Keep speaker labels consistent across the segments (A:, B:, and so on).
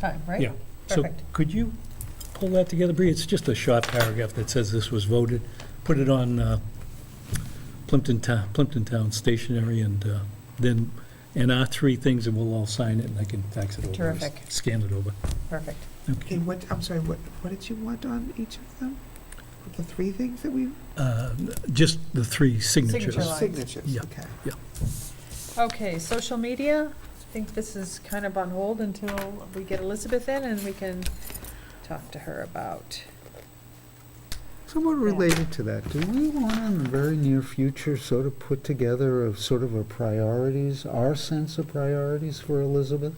A: time, right?
B: Yeah. So
A: Perfect.
B: could you pull that together, Bree? It's just a short paragraph that says this was voted. Put it on uh, Plimpton Town, Plimpton Town stationery and uh, then, and our three things, and we'll all sign it, and I can fax it over. or s-
A: Terrific.
B: Scan it over.
A: Perfect.
B: Okay.
C: And what, I'm sorry, what, what did you want on each of them? The three things that we,
B: Uh, Just the three signatures.
A: Signature line.
C: signatures,
B: Yeah.
C: okay.
A: Okay, social media, I think this is kind of on hold until we get Elizabeth in and we can talk to her about.
D: Somewhat related to that, do we want to, in the very near future, sort of put together a sort of a priorities, our sense of priorities for Elizabeth?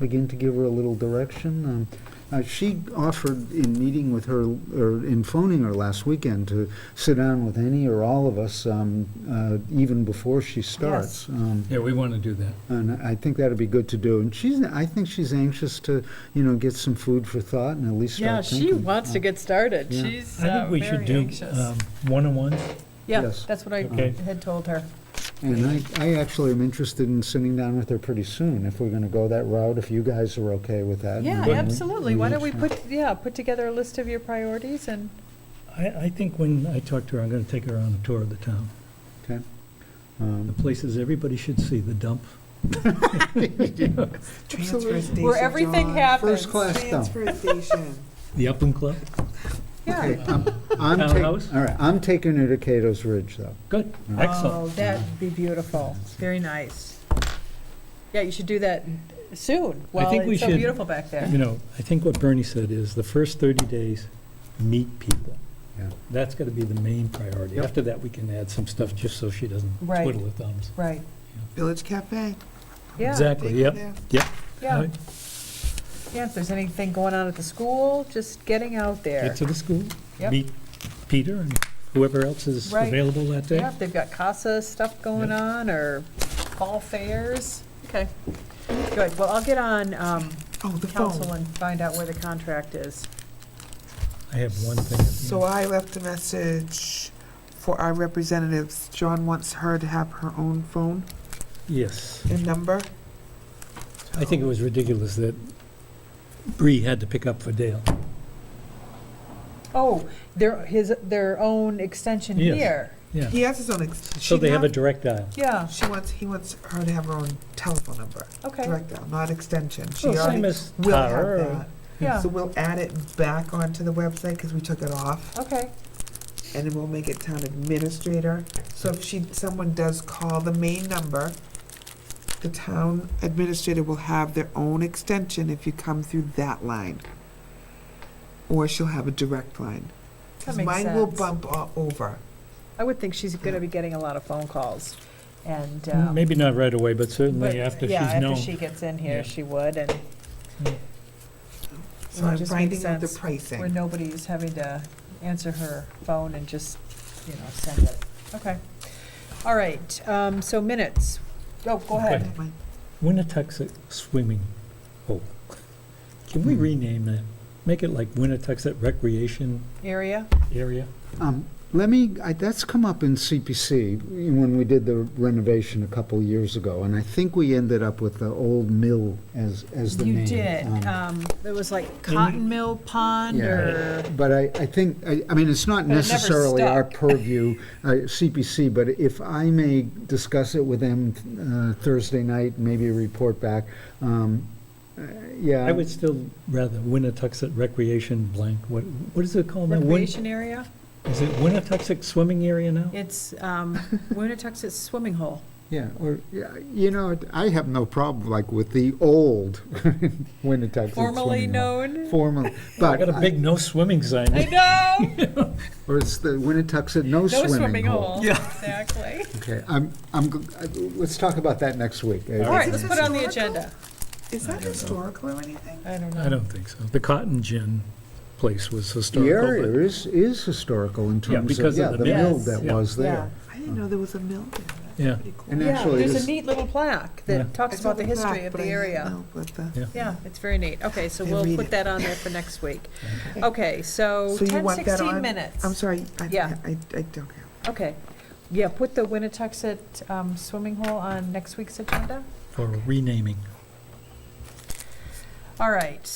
D: Begin to give her a little direction? Um, uh, She offered, in meeting with her, or in phoning her last weekend, to sit down with any or all of us um, uh, even before she starts. Um,
B: Yeah, we want to do that.
D: And I think that'd be good to do. And she's, I think she's anxious to, you know, get some food for thought and at least
A: Yeah,
D: start
A: she
D: thinking.
A: wants to
D: Um,
A: get started.
D: Yeah.
A: She's
B: I
A: uh,
B: think we should
A: very
B: do um,
A: anxious.
B: one-on-ones.
A: Yeah,
D: Yes.
A: that's what I
B: Okay.
A: had told her.
D: And I, I actually am interested in sitting down with her pretty soon, if we're gonna go that route, if you guys are okay with that. and
A: Yeah,
D: then we-
A: absolutely. Why don't we
D: can-
A: put, yeah, put together a list of your priorities and,
B: I, I think when I talk to her, I'm going to take her on a tour of the town.
D: Okay.
B: The
D: Um,
B: places everybody should see, the dump.
C: Transfer
D: Absolutely.
C: station,
A: where everything
C: John.
A: happens.
D: First class dump.
C: Transfer station.
B: The Upland Club?
D: Okay,
A: Yeah.
D: um, I'm ta-
B: Townhouse?
D: All right, I'm taking her to Cato's Ridge, though.
B: Good,
A: Oh,
B: excellent.
A: that'd be beautiful. Very nice. Yeah, you should do that soon.
B: I
A: Well,
B: think we
A: it's so
B: should-
A: beautiful back there.
B: You know, I think what Bernie said is the first 30 days, meet people.
D: Yeah.
B: That's got to be the main priority.
D: Yep.
B: After that, we can add some stuff just so she doesn't
A: Right.
B: twiddle her thumbs.
A: Right,
C: Village Cafe.
B: Oh,
A: yeah,
B: Exactly,
C: Take it
B: yep,
C: there.
B: yep.
A: yeah.
B: Right.
A: Yeah, if there's anything going on at the school, just getting out there.
B: Get to the school,
A: Yep.
B: meet Peter and whoever else is
A: Right.
B: available that day.
A: Yeah, if they've got CASA stuff going
B: eh? Yeah.
A: on or fall fairs. Okay, good. Well, I'll get on um,
C: Oh, the
A: council
C: phone.
A: and find out where the contract is.
B: I have one thing. at the
C: So I left a message for our representatives. John wants her to have her own phone
B: end. Yes.
C: and number.
B: I think it was ridiculous that Bree had to pick up for Dale.
A: Oh, their, his, their own extension
B: Yes.
A: here.
B: Yeah.
C: He has his own, ex-
B: So
C: she
B: they have a
C: not-
B: direct dial.
A: Yeah,
C: she wants, he wants her to have her own telephone number,
A: okay,
C: direct dial, not extension. She
B: Well, Oh, Same
C: already
B: as
C: will have
B: Tara or-
C: that.
A: yeah,
C: Uh, So we'll add it back onto the website because we took it off,
A: okay,
C: and then we'll make it town administrator. So if she, someone does call the main number, the town administrator will have their own extension if you come through that line. Or she'll have a direct line. 'Cause
A: that makes
C: Mine will
A: sense.
C: bump o- over.
A: I would think she's gonna be getting a lot of phone calls and.
B: Mm,
A: um,
B: Maybe not right away, but
A: but,
B: certainly after she's
A: Yeah,
B: known.
A: after she gets in
B: Yeah.
A: here, she would, and
C: So
A: It
C: I'm
A: just makes
C: finding out the
A: sense. where
C: pricing.
A: nobody's having to answer her phone and just, you know, send it. Okay. All right, um, so minutes. Oh, go ahead.
C: Never mind.
B: Winnetoxet Swimming Hole. Can we
D: Hmm.
B: rename that? Make it like Winnetoxet Recreation
A: Area?
B: Area?
D: Um, Let me, I- that's come up in CPC when we did the renovation a couple years ago, and I think we ended up with the old mill as, as the name.
A: You did.
D: Um,
A: Um, it was like Cotton Mill Pond
D: Yeah.
A: or,
D: But I, I think, I, I mean, it's not
A: But it never
D: necessarily our
A: stuck.
D: purview, uh, CPC, but if I may discuss it with them uh, Thursday night, maybe report back, um, uh, yeah.
B: I would still rather Winnetoxet Recreation blank, what, what is it called now? Win-
A: recreation area.
B: Is it Winnetoxet Swimming Area now?
A: It's, um, Winnetoxet Swimming Hole.
D: Yeah, or, yeah, you know, I have no problem, like, with the old Winnetoxet.
A: Formerly
D: Swimming Hall.
A: known.
D: Formerly,
B: I
D: but,
B: got a
D: I-
B: big no swimming sign.
A: I know.
D: or it's the Winnetoxet no
A: No
D: swimming hole.
A: Exactly.
D: Okay, I'm, I'm, g- I- let's talk about that next week.
A: All right, let's
C: it
A: put it on the
C: historical?
A: agenda.
C: Is that historical or anything?
A: I don't
B: I
A: know.
B: don't think so. The Cotton Gin place was
D: The
B: historical.
D: area
B: but-
D: is, is historical in
B: Yeah,
D: terms
B: because
D: of,
B: of the
D: yeah, the
A: mill.
D: mill
A: Yes.
D: that
B: Yeah.
D: was
A: Yeah.
D: there.
C: I didn't know there was a mill there.
B: Yeah.
C: That's pretty cool.
D: And
A: Yeah,
D: actually,
A: There's
D: this-
A: a neat little plaque
B: Yeah.
A: that
C: I
A: talks
C: saw
A: about the
C: plaque,
A: history of
C: but
A: the
C: I didn't
A: area.
C: know what the-
A: Yeah, it's very neat. Okay, so
C: And
A: we'll
C: read
A: put
C: it.
A: that on there for next week. Okay, so
C: So you
A: ten
C: want that
A: sixteen
C: on?
A: minutes.
C: I'm sorry, I,
A: Yeah.
C: I, I don't have.
A: Okay. Yeah, put the Winnetoxet um, swimming hole on next week's agenda.
B: For renaming.
A: All right,